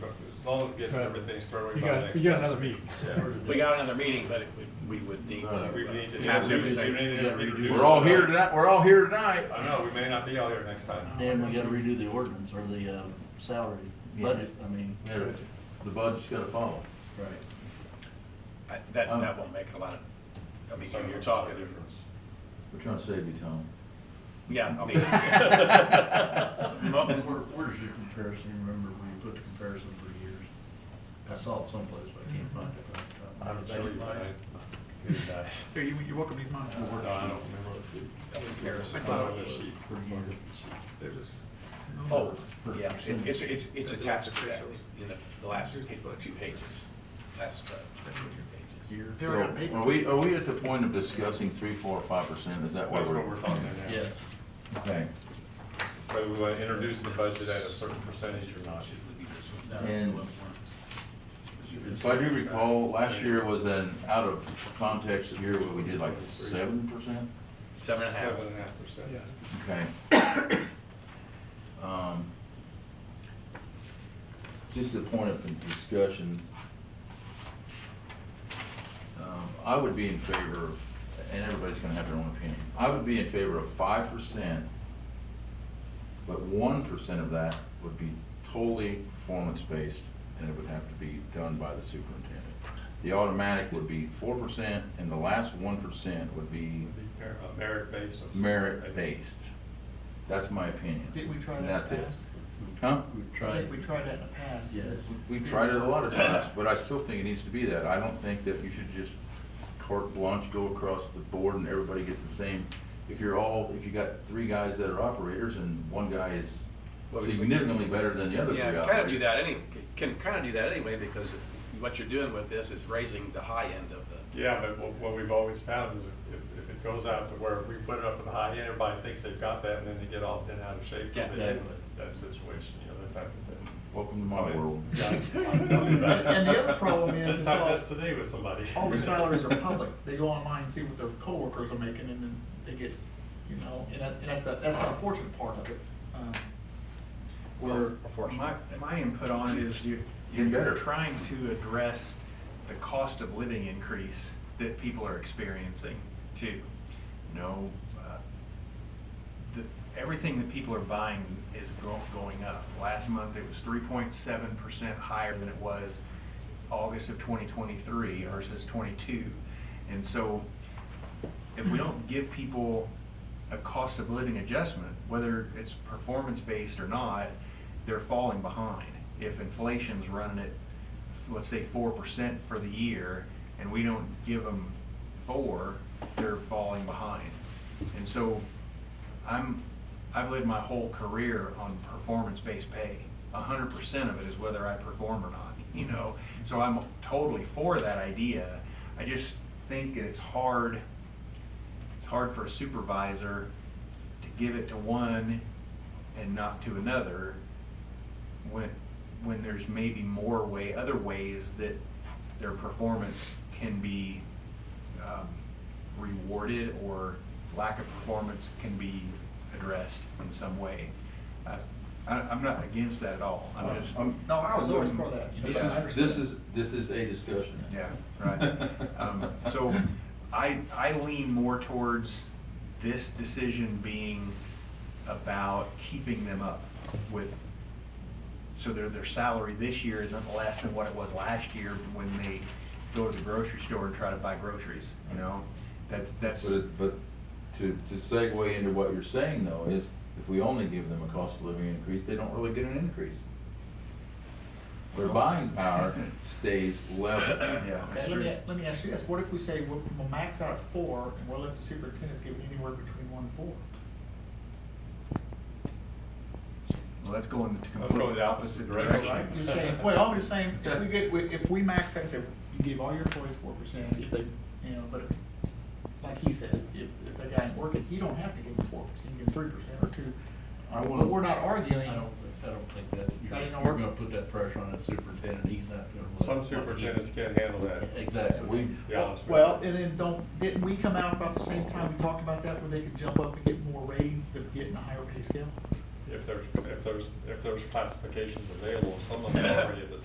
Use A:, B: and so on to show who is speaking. A: long as we get everything squared away
B: You
A: by
B: got,
A: next.
B: you got another meeting.
C: We got another meeting, but it would- we would need to.
A: meeting. We need to,
C: uh,
A: we
C: have
A: need to- we
C: everything.
A: need to reduce-
D: We're all here tonight, we're all here tonight.
A: I know, we may not be all here next time.
E: Dan, we gotta redo the ordinance or the, uh, salary budget, I mean.
D: Everything. The budget's gonna follow.
E: Right.
C: I- That,
A: Oh.
C: that won't make a lot of, I mean, you're- you're talking,
A: difference.
D: We're trying to save you, Tom.
C: yeah, I mean, mo-
F: Where, where's your comparison? Remember when you put the comparison for years? I saw it someplace, but I can't find it. right now.
A: I'm sure you might. Good day.
G: Here, you, you welcome these mine.
A: No, I don't remember. It's
C: comparison.
A: not on the sheet.
G: They're just.
C: Oh, yeah, it's, it's, it's, it's attached to that in the, the last two pages, last, uh, two pages.
G: They
D: So,
G: were gonna pay-
D: are we, are we at the point of discussing three, four, or five percent? Is that where
A: That's
D: we're?
A: what we're talking about.
E: Yeah,
D: Okay.
A: Whether we want to uh, introduce the budget at a certain percentage or not.
C: Should be this one. No,
D: And-
C: it wasn't.
D: If I do recall, last year was an out of context year where we did like seven percent?
C: Seven and a half.
A: Seven and a half percent.
B: Yeah.
D: Okay. Um, Just a point of discussion. Um, I would be in favor of, and everybody's gonna have their own opinion, I would be in favor of five percent, but one percent of that would be totally performance-based, and it would have to be done by the superintendent. The automatic would be four percent, and the last one percent would be
A: Merit based. uh, or-
D: merit-based. That's my opinion.
G: Did we try
D: And
G: that
D: that's
G: in the
D: it.
G: past?
D: Huh?
F: We
G: I
F: tried,
G: think we tried that in the past.
F: yes.
D: We tried it a lot of times, but I still think it needs to be that. I don't think that you should just carte blanche, go across the board and everybody gets the same. If you're all, if you got three guys that are operators and one guy is
C: Well, we-
D: significantly better than the other three
C: Yeah, kind of do
D: operators.
C: that any, can kind of do that anyway, because what you're doing with this is raising the high end of the,
A: Yeah, but what, what we've always found is if, if it goes out to where we put it up at the high end, everybody thinks they've got that and then they get all bent out of shape. 'cause
C: Yeah,
A: they didn't
E: exactly.
A: That situation, you know, that type of thing.
D: Welcome to my world.
G: And the other problem is,
A: Let's
G: it's
A: talk
G: all-
A: that today with somebody.
G: All the salaries are public. They go online, and see what their coworkers are making, and then they get, you know, and that, and that's the, that's the unfortunate part of it. Um, Where,
H: My,
C: unfortunately.
H: my input on it is you,
D: Getting
H: you're
D: better.
H: trying to address the cost of living increase that people are experiencing too. You know, uh, the, everything that people are buying is go- going up. Last month, it was three point seven percent higher than it was August of twenty twenty-three versus twenty-two. And so if we don't give people a cost of living adjustment, whether it's performance-based or not, they're falling behind. If inflation's running at, let's say, four percent for the year, and we don't give them four, they're falling behind. And so I'm, I've lived my whole career on performance-based pay. A hundred percent of it is whether I perform or not, you know? So I'm totally for that idea. I just think that it's hard, it's hard for a supervisor to give it to one and not to another when, when there's maybe more way, other ways that their performance can be um, rewarded or lack of performance can be addressed in some way. I, I- I'm not against that at all. I'm just,
D: Um,
G: no, I was always for that.
D: This
G: Yeah, I
D: is,
G: understand.
D: this is, this is a discussion.
H: yeah, right. Um, So I, I lean more towards this decision being about keeping them up with, so their, their salary this year isn't less than what it was last year when they go to the grocery store and try to buy groceries, you know? That's, that's.
D: But, it- but to, to segue into what you're saying though, is if we only give them a cost of living increase, they don't really get an increase. Their buying power stays level.
H: Yeah, that's
G: Okay, let
H: true.
G: me, let me ask you this, what if we say we'll, we'll max out at four, and we'll let the superintendents give anywhere between one and four?
H: Well, that's going the
A: Let's go
H: completely opposite direction.
G: Right, you're saying, well, I'm just saying, if we get, if we max out, say, you give all your employees four percent, if they, you know, but like he says, if, if that guy ain't working, you don't have to give him four percent, you give three percent or two.
D: I
G: But we're
D: wanna,
G: not arguing,
E: I don't, think- I don't think that,
G: That
E: you're,
G: ain't gonna
E: you're
G: work.
E: gonna put that pressure on that superintendent, he's not gonna. let-
A: Some superintendents can't handle that.
E: Exactly.
D: we,
A: to be honest with
G: well,
A: you.
G: and then don't, didn't we come out about the same time we talked about that, where they could jump up and get more ratings than getting a higher pay scale?
A: If there's, if there's, if there's classifications available, some of them are already at the